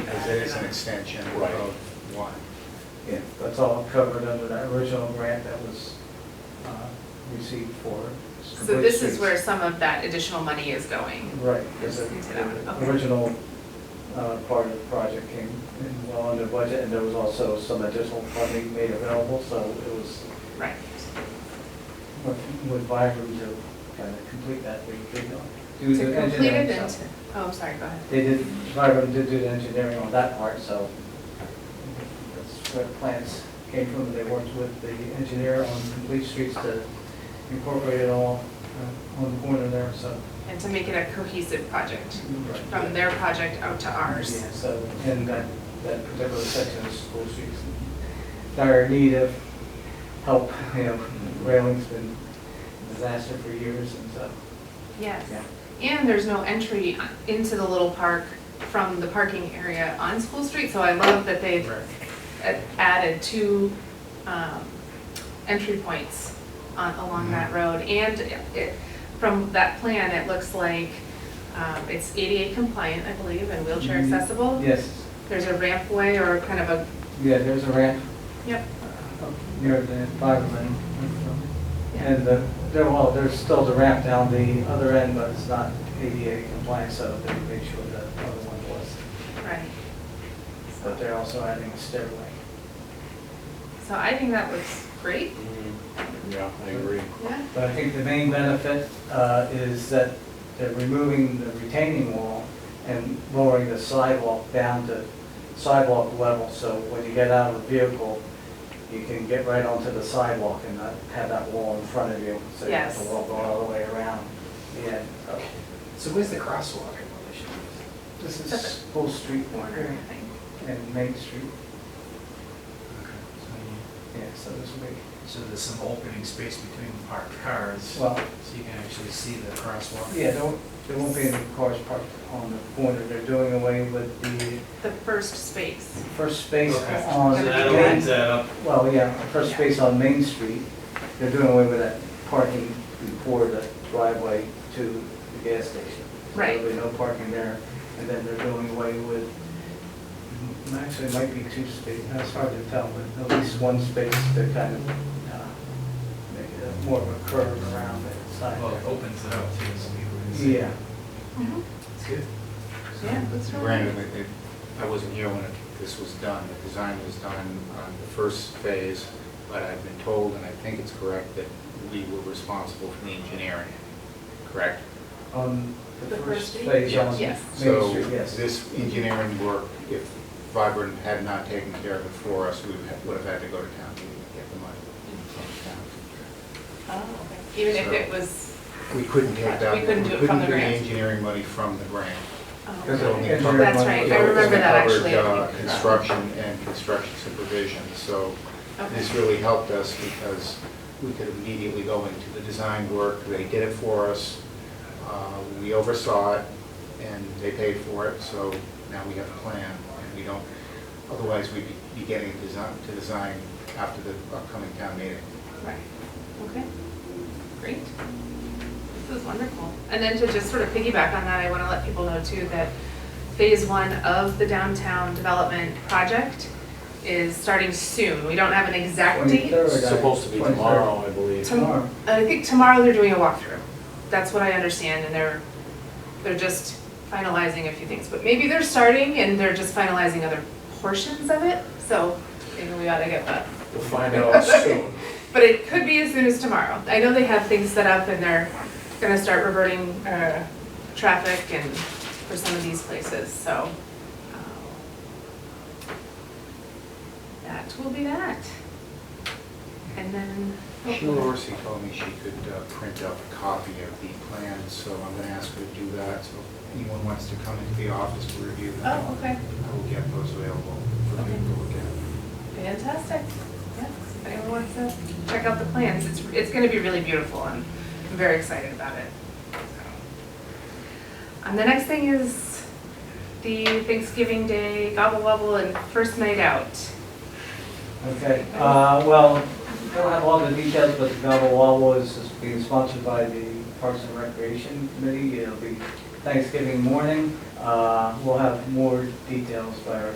that is an extension of Right. Road 1. Yeah, that's all covered under that original grant that was uh, received for. So this is where some of that additional money is going. Right, because the Into that one, the okay. original uh, part of the project came in well under budget, and there was also some additional funding made available, so it was Right. with- with Byram to kind of complete that, we did not To do the complete it engineering. and, stuff. to- oh, I'm sorry, go ahead. They did, Byram did do the engineering on that part, so that's where the plans came from, they worked with the engineer on complete streets to incorporate it all uh, on the corner there, so. And to make it a cohesive project, Right. from their project out to ours. Yeah, So, and that, that particular section of school streets dire need of help, you know, railing's been a disaster for years and so, Yes. yeah. And there's no entry into the little park from the parking area on School Street, so I love that they've a- added two um, entry points on, along that road. And it, from that plan, it looks like um, it's ADA compliant, I believe, and wheelchair Mhm. accessible. Yes, There's a rampway or kind of a, yeah, there's a ramp yep, uh, up near the bottom end. Yeah. And the, there, well, there's still the ramp down the other end, but it's not ADA compliant, so they made sure the other one was. right. But they're also adding a stairway. So I think that looks great, Yeah, I agree. yeah. But I think the main benefit uh, is that they're removing the retaining wall and lowering the sidewalk down to sidewalk level, so when you get out of the vehicle, you can get right onto the sidewalk and not have that wall in front of you, so you have to Yes. walk all the way around the end. So So where's the crosswalk in relation to this? This is Full Street corner and Main Street, yeah, so this will be, So there's some opening space between parked cars, so well, you can actually see the crosswalk? yeah, there won't- there won't be any cars parked on the corner, they're doing away with the The first space, First space Okay. on, So So that opens that up. well, yeah, first space on Main Street, they're doing away with that parking before the driveway to the gas station. So Right. There'll be no parking there, and then they're doing away with, mm, actually, it might be two spaces, it's hard to tell, but at least one space to kind of uh, make it a- more of a curve around the side Oh, Well, it there. opens it up too, so people can see. Yeah, It's good. yeah, that's really. Granted, it- it- I wasn't here when it- this was done, the design was done on the first phase, but I've been told, and I think it's correct, that we were responsible for the engineering, correct? on the The first first space? phase on Main Yes. So Street, yes. this engineering work, if Vibrant had not taken care of it for us, we would have- would have had to go to town meeting to get the money. from town. Oh, okay. Even if it was, We couldn't get that. Mm-hmm. We couldn't do it from the We couldn't grant. get engineering money from the grant. oh, Because So- of okay. engineering That's money. right, I So it remember that actually. covered, uh, Construction and construction supervision, so okay, this really helped us because we could immediately go into the design work, they did it for us, uh, we oversaw it, and they paid for it, so now we have a plan, and we don't, otherwise we'd be- be getting design, to design after the upcoming town meeting. right, okay, great. This is wonderful. And then to just sort of piggyback on that, I want to let people know too that phase one of the downtown development project is starting soon. We don't have an exact date. 23rd, I- It's supposed to be 23rd. tomorrow, I believe. Tom- Tomorrow. I think tomorrow they're doing a walkthrough. That's what I understand, and they're, they're just finalizing a few things. But maybe they're starting and they're just finalizing other portions of it, so maybe we ought to get that. We'll find out soon. But it could be as soon as tomorrow. I know they have things set up and they're gonna start reverting, uh, traffic and for some of these places, so. um, That will be that. And then. oh, Sheila Orsi told me she could uh, print out a copy of the plan, so I'm gonna ask her to do that, so if anyone wants to come into the office to review them. Oh, okay. I will get those available for Okay. people to look at. Fantastic. Yes, if anyone wants to check out the plans, it's, it's gonna be really beautiful and I'm very excited about it. And the next thing is the Thanksgiving Day gobble wobble and first night out. Okay, uh, well, I don't have all the details, but the Gobble Wobble is is being sponsored by the Parks and Recreation Committee. It'll be Thanksgiving morning. Uh, We'll have more details by our